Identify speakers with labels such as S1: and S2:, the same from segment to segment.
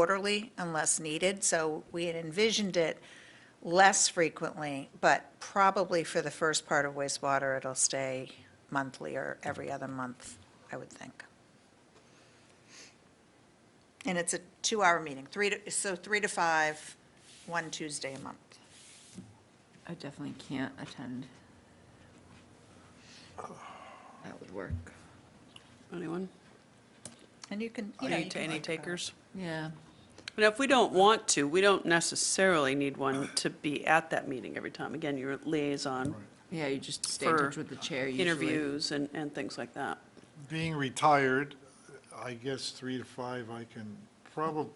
S1: quarterly unless needed, so we had envisioned it less frequently, but probably for the first part of wastewater, it'll stay monthly or every other month, I would think. And it's a two-hour meeting, three to, so three to five, one Tuesday a month.
S2: I definitely can't attend. That would work.
S3: Anyone?
S1: And you can, you know,
S3: Any,
S1: you
S3: ta-
S1: can
S3: any
S1: think about it.
S3: takers?
S2: Yeah.
S3: Now, if we don't want to, we don't necessarily need one to be at that meeting every time. Again, you're a liaison
S2: Yeah, you just stay in
S3: for
S2: touch with the chair usually.
S3: interviews and, and things like that.
S4: Being retired, I guess three to five, I can probably,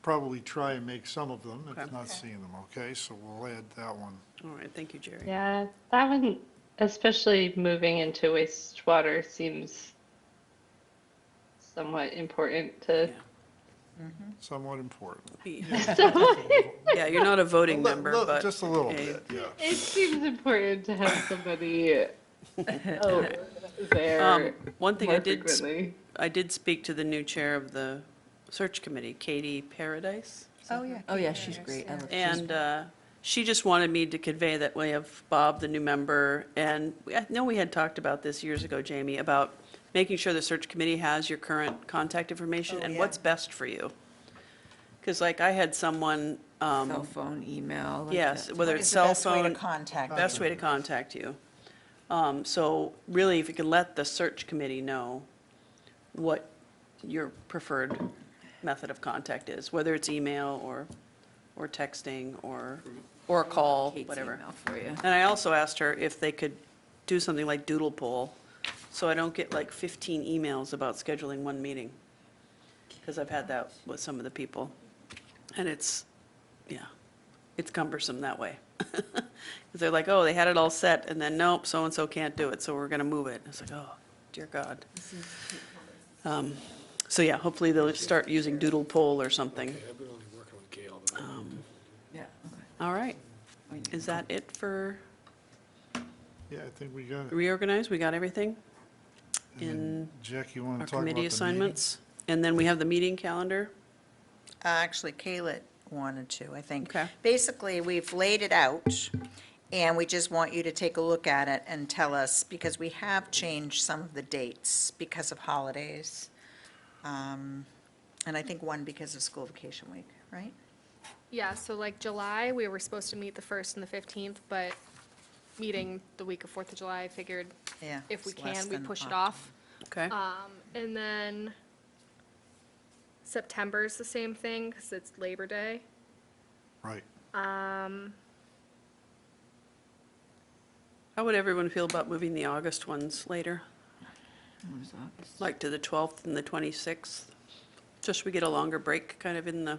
S4: probably try and make some of them,
S3: Okay.
S4: if not seeing them, okay? So we'll add that one.
S3: All right, thank you, Jerry.
S5: Yeah, that one, especially moving into wastewater, seems somewhat important to.
S3: Yeah.
S4: Somewhat important.
S3: Be-
S5: Somewhat-
S3: Yeah, you're not a voting
S4: A li-
S3: member,
S4: li-
S3: but.
S4: Just a little
S3: yeah,
S4: bit, yeah.
S5: it seems important to have somebody oh, there
S3: Um, One thing I
S5: more
S3: did, s-
S5: frequently.
S3: I did speak to the new chair of the search committee, Katie Paradise.
S1: Oh, yeah.
S2: Oh,
S1: keep
S2: yeah,
S1: it
S2: she's
S1: there.
S2: great. I love, she's,
S3: And uh, she just wanted me to convey that we have Bob, the new member, and we- I know we had talked about this years ago, Jamie, about making sure the search committee has your current contact information
S1: Oh,
S3: and
S1: yeah.
S3: what's best for you. Because like I had someone, um,
S2: cell phone, email. like
S3: yes,
S2: that.
S3: whether
S1: What
S3: it's
S1: is the
S3: cell
S1: best way to
S3: phone,
S1: contact?
S3: best way to contact you. Um, So really, if you can let the search committee know what your preferred method of contact is, whether it's email or, or texting or, or a call,
S2: Kate's
S3: whatever.
S2: email for you.
S3: And I also asked her if they could do something like doodle poll, so I don't get like 15 emails about scheduling one meeting. Because I've had that with some of the people. And it's, yeah, it's cumbersome that way. Because they're like, oh, they had it all set, and then nope, so-and-so can't do it, so we're going to move it. It's like, oh, dear God. Um, So yeah, hopefully they'll start using doodle poll or something.
S6: I've been only working with Gail.
S2: Yeah, okay.
S3: All right,
S2: We need-
S3: is that it for
S4: Yeah, I think we got it.
S3: reorganize? We got everything?
S4: And then, Jack, you want
S3: our
S4: to talk about the
S3: committee
S4: meeting?
S3: assignments, and then we have the meeting calendar.
S1: Uh, Actually, Kayla wanted to, I think.
S3: Okay.
S1: Basically, we've laid it out, and we just want you to take a look at it and tell us, because we have changed some of the dates because of holidays. Um, And I think one because of school vacation week, right?
S7: Yeah, so like July, we were supposed to meet the first and the fifteenth, but meeting the week of Fourth of July, I figured
S1: Yeah.
S7: if we
S1: it's less
S7: can, we
S1: than
S7: push it
S1: October.
S7: off.
S3: Okay.
S7: Um, and then September's the same thing, because it's Labor Day.
S4: Right.
S7: Um,
S3: How would everyone feel about moving the August ones later,
S2: What was August?
S3: like to the 12th and the 26th? Just we get a longer break, kind of in the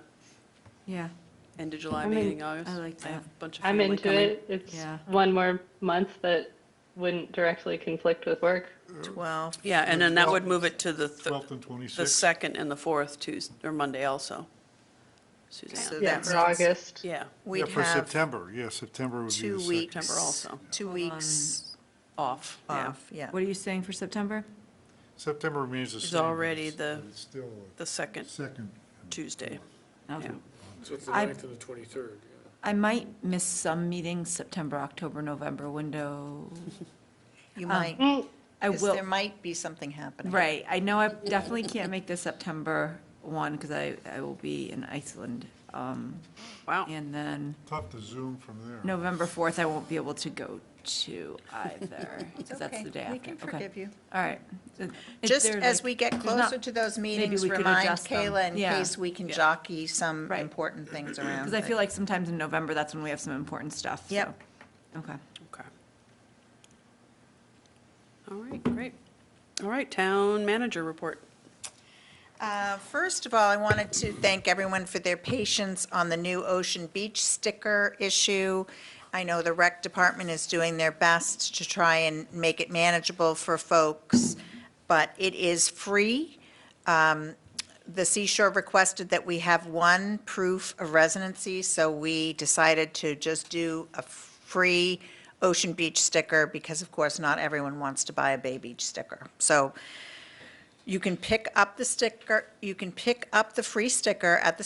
S2: Yeah,
S3: end of July,
S5: I'm in-
S3: beginning of August?
S2: I like
S3: have a
S2: that.
S3: bunch of
S5: I'm
S3: family
S5: into
S3: coming.
S5: it. It's
S2: Yeah.
S5: one more month that wouldn't directly conflict with work.
S1: Twelve,
S3: Yeah, and then that would move it to the, th-
S4: 12th and
S3: the
S4: 26th.
S3: 2nd and the 4th, Tuesday, or Monday also.
S1: so
S3: Suzanne,
S5: Yeah,
S1: that
S5: for
S1: means
S5: August.
S3: yeah,
S4: Yeah,
S1: we'd
S4: for
S1: have
S4: September, yeah, September would be the
S1: two
S4: second.
S1: weeks.
S3: September also.
S1: Two weeks
S3: off, yeah.
S1: off, yeah.
S2: what are you saying for September?
S4: September remains the
S3: It's
S4: same. but
S3: already
S4: it's-
S3: the-
S4: but It's still
S3: The
S4: a
S3: 2nd
S4: second.
S3: Tuesday,
S2: Okay.
S3: yeah.
S6: So it's the
S2: I-
S6: 9th and the 23rd. yeah.
S2: I might miss some meetings, September, October, November window.
S1: You might,
S5: Mm,
S2: I
S1: 'cause
S2: will,
S1: there might be something happening.
S2: right, I know I definitely can't make the September one because I, I will be in Iceland. um,
S3: Wow.
S1: Oh.
S2: And then
S4: Tough to zoom from there.
S2: November 4th, I won't be able to go to either,
S1: It's
S2: because that's
S1: okay.
S2: the day after.
S1: We can
S2: Okay.
S1: forgive you.
S2: All right. So if
S1: Just
S2: they're
S1: as
S2: like-
S1: we get
S2: there's not-
S1: closer to those meetings,
S2: we could
S1: remind
S2: adjust them.
S1: Kayla in
S2: Yeah.
S1: case we can jockey some
S2: Right.
S1: important things around.
S2: Because I
S1: that-
S2: feel like sometimes in November, that's when we have some important stuff. so-
S1: Yep.
S2: Okay.
S3: Okay. All right, great. All right, town manager report.
S1: Uh, First of all, I wanted to thank everyone for their patience on the new Ocean Beach sticker issue. I know the rec department is doing their best to try and make it manageable for folks, but it is free. Um, The Seashore requested that we have one proof of residency, so we decided to just do a free Ocean Beach sticker because, of course, not everyone wants to buy a Bay Beach sticker. So You can pick up the sticker, you can pick up the free sticker at the